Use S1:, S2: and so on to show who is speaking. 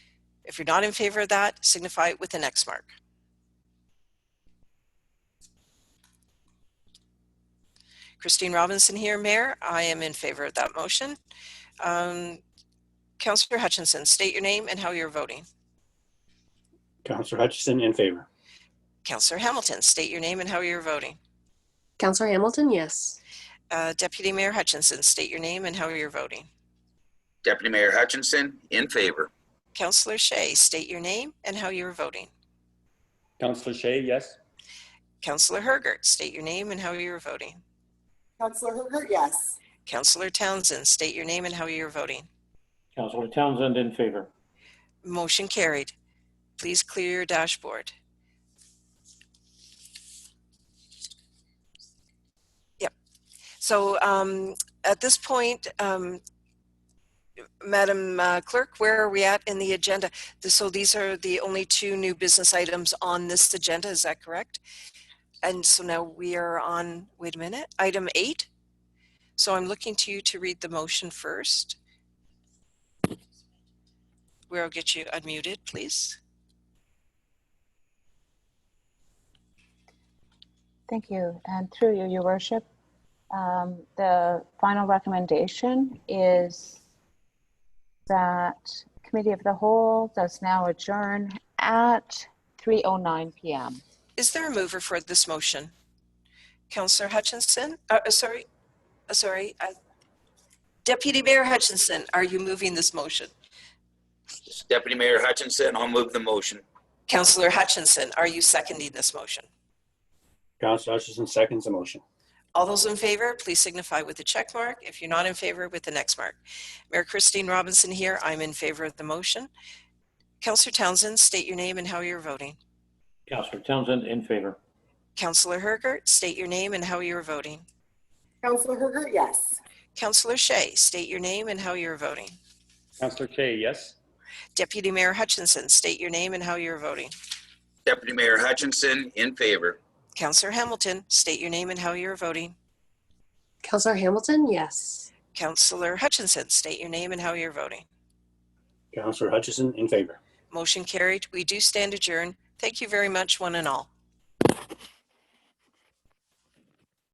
S1: If you're not in favor of that, signify with an X mark. Christine Robinson here, Mayor. I am in favor of that motion. Um, Councillor Hutchinson, state your name and how you're voting.
S2: Counselor Hutchison in favor.
S1: Councillor Hamilton, state your name and how you're voting.
S3: Counselor Hamilton, yes.
S1: Uh, Deputy Mayor Hutchinson, state your name and how you're voting.
S4: Deputy Mayor Hutchinson, in favor.
S1: Councillor Shea, state your name and how you're voting.
S5: Counselor Shay, yes.
S1: Councillor Hergert, state your name and how you're voting.
S6: Counselor Hooker, yes.
S1: Councillor Townsend, state your name and how you're voting.
S2: Counselor Townsend in favor.
S1: Motion carried. Please clear your dashboard. Yep. So um, at this point, um, Madam uh, Clerk, where are we at in the agenda? Th- So these are the only two new business items on this agenda, is that correct? And so now we are on, wait a minute, item eight. So I'm looking to you to read the motion first. Where I'll get you unmuted, please.
S7: Thank you. And through you, Your Worship, um, the final recommendation is that Committee of the Whole does now adjourn at 3:09 PM.
S1: Is there a mover for this motion? Counselor Hutchinson, uh, uh, sorry, uh, sorry. I- Deputy Mayor Hutchinson, are you moving this motion?
S4: Deputy Mayor Hutchinson, I'll move the motion.
S1: Counselor Hutchinson, are you seconding this motion?
S2: Counselor Hutchison seconds the motion.
S1: All those in favor, please signify with a check mark. If you're not in favor, with the next mark. Mayor Christine Robinson here, I'm in favor of the motion. Counselor Townsend, state your name and how you're voting.
S2: Counselor Townsend in favor.
S1: Counselor Hergert, state your name and how you're voting.
S6: Counselor Hooker, yes.
S1: Counselor Shea, state your name and how you're voting.
S5: Counselor Shay, yes.
S1: Deputy Mayor Hutchinson, state your name and how you're voting.
S4: Deputy Mayor Hutchinson, in favor.
S1: Counselor Hamilton, state your name and how you're voting.
S3: Counselor Hamilton, yes.
S1: Counselor Hutchinson, state your name and how you're voting.
S2: Counselor Hutchison in favor.
S1: Motion carried. We do stand adjourned. Thank you very much, one and all.